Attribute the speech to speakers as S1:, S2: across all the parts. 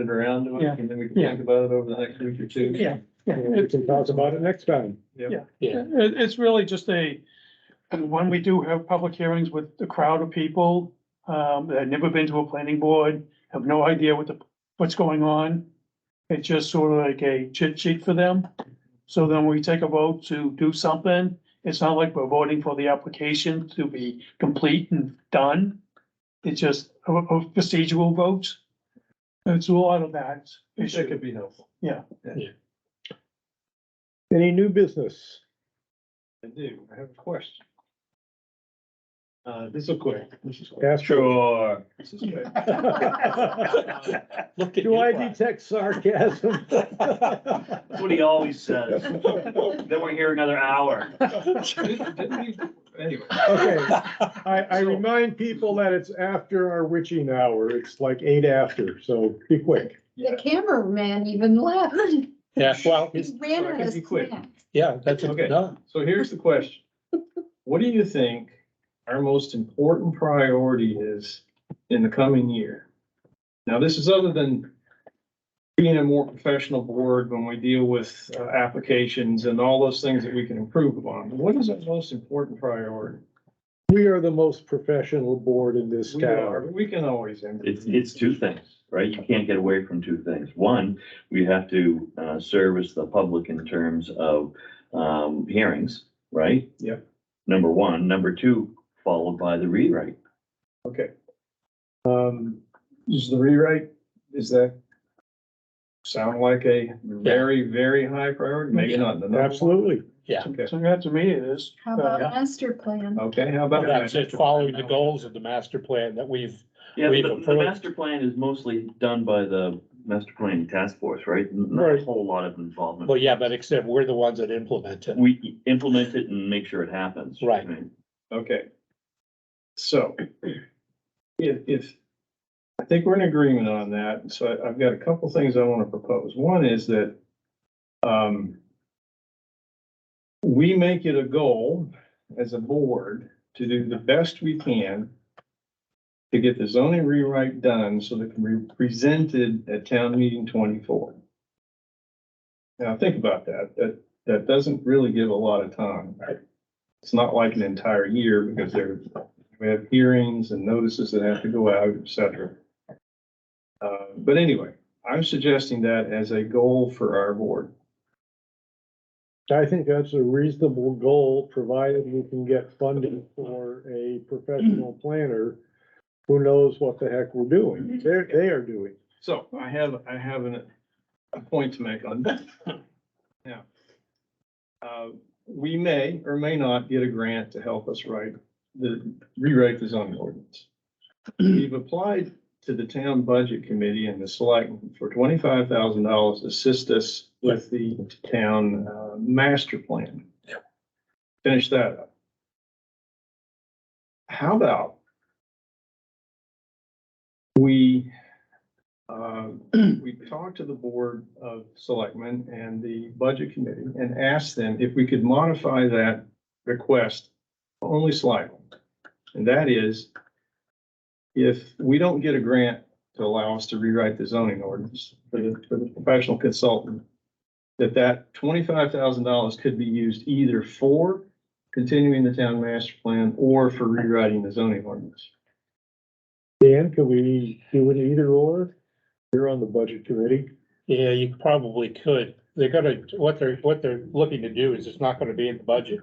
S1: it around to
S2: Yeah.
S1: us and then we can
S2: Yeah.
S1: think about it over the next week or two.
S2: Yeah, yeah.
S3: And we
S2: It,
S3: can talk about it next time.
S4: Yeah.
S2: it- it's really just a, and when we do have public hearings with the crowd of people, um, that have never been to a planning board, have no idea what the, what's going on. It's just sort of like a chit sheet for them. So then we take a vote to do something. It's not like we're voting for the application to be complete and done. It's just a, a procedural vote. It's a lot of that issue.
S1: It could be helpful.
S3: Any new business?
S1: I do, I have a question. Uh, this is quick. This is quick.
S3: Ask-
S1: Sure. This is quick. Uh,
S4: Look at
S3: Do I
S4: you.
S3: detect sarcasm?
S5: That's what he always says. Then we're here another hour.
S1: didn't- didn't we- Anyway,
S3: Okay, I, I remind people that it's after our witching hour. It's like eight after, so be quick.
S1: Yeah.
S6: The cameraman even left. He
S4: Yeah, well, it's-
S6: ran
S1: I
S6: out
S1: can
S6: of
S1: be quick.
S6: snacks.
S4: yeah, that's,
S1: Okay.
S4: no,
S1: so here's the question. What do you think our most important priority is in the coming year? Now, this is other than being a more professional board when we deal with uh, applications and all those things that we can improve upon. What is our most important priority?
S3: We are the most professional board in this
S1: We are,
S3: town.
S1: but we can always. improve.
S7: It's, it's two things, right? You can't get away from two things. One, we have to, uh, service the public in terms of, um, hearings, right?
S1: Yep.
S7: Number one, number two, followed by the rewrite.
S1: Okay. Um, is the rewrite, is that sound like a very, very high priority? Maybe not in the number one.
S3: Absolutely.
S4: yeah.
S1: Okay,
S2: So that to me it is.
S6: How about
S4: Oh, Yeah.
S6: master plan?
S1: okay, how about
S4: That's
S1: that?
S4: it, following the goals of the master plan that we've,
S7: Yeah,
S4: We've
S7: the, the
S4: approved.
S7: master plan is mostly done by the master planning task force, right? Not a
S3: Right.
S7: whole lot of involvement.
S4: well, yeah, but except we're the ones that implement it.
S7: We implement it and make sure it happens.
S4: Right.
S1: Okay. So if, if, I think we're in agreement on that, so I- I've got a couple things I want to propose. One is that um, we make it a goal as a board to do the best we can to get the zoning rewrite done so that it can be presented at town meeting twenty-four. Now, think about that. That, that doesn't really give a lot of time. It's not like an entire year because there, we have hearings and notices that have to go out, et cetera. Uh, but anyway, I'm suggesting that as a goal for our board.
S3: I think that's a reasonable goal, provided we can get funding for a professional planner who knows what the heck we're doing. They're, they are doing.
S1: So I have, I have an, a point to make on that. Now, uh, we may or may not get a grant to help us write the, rewrite the zoning ordinance. We've applied to the town budget committee and the select for twenty-five thousand dollars to assist us with the town, uh, master plan. Finish that up. How about we uh, we talked to the Board of Selectmen and the Budget Committee and asked them if we could modify that request only slightly. And that is, if we don't get a grant to allow us to rewrite the zoning ordinance for the, for the professional consultant, that that twenty-five thousand dollars could be used either for continuing the town master plan or for rewriting the zoning ordinance.
S3: Dan, can we do it either or? You're on the budget committee.
S4: Yeah, you probably could. They're gonna, what they're, what they're looking to do is it's not gonna be in the budget.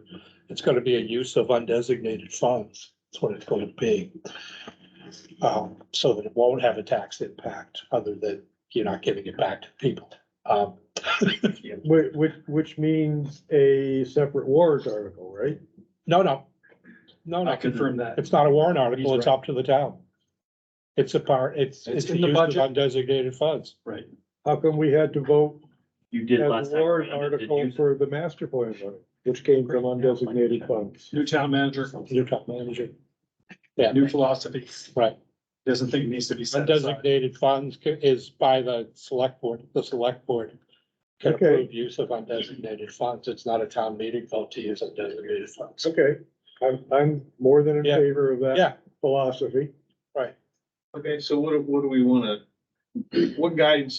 S4: It's gonna be a use of undesignated funds. That's what it's going to be. Um, so that it won't have a tax impact other than you're not giving it back to people. Um,
S3: Which, which, which means a separate warrant article, right?
S4: no, no. No, no.
S1: that.
S4: It's not a warrant
S1: He's
S4: article, it's
S1: right.
S4: up to the town. It's a part, it's,
S1: It's
S4: it's the
S1: in the
S4: use of
S1: budget.
S4: undesignated funds.
S1: Right.
S3: How come we had to vote
S7: You
S3: as
S7: did
S3: a
S7: last time.
S3: warrant
S7: around, it did
S3: article
S7: use-
S3: for the master plan money, which came from undesignated funds?
S8: New town manager,
S4: New town manager. Yeah,
S8: new philosophy,
S4: right.
S8: doesn't think it needs to be set aside.
S4: Undesignated funds ca- is by the select board, the select board. Can
S3: Okay.
S4: approve use of undesignated funds. It's not a town meeting vote to use undesignated funds.
S3: Okay, I'm, I'm more than in
S4: Yeah.
S3: favor of
S4: Yeah.
S3: that philosophy.
S1: Okay, so what, do- what do we want to what guidance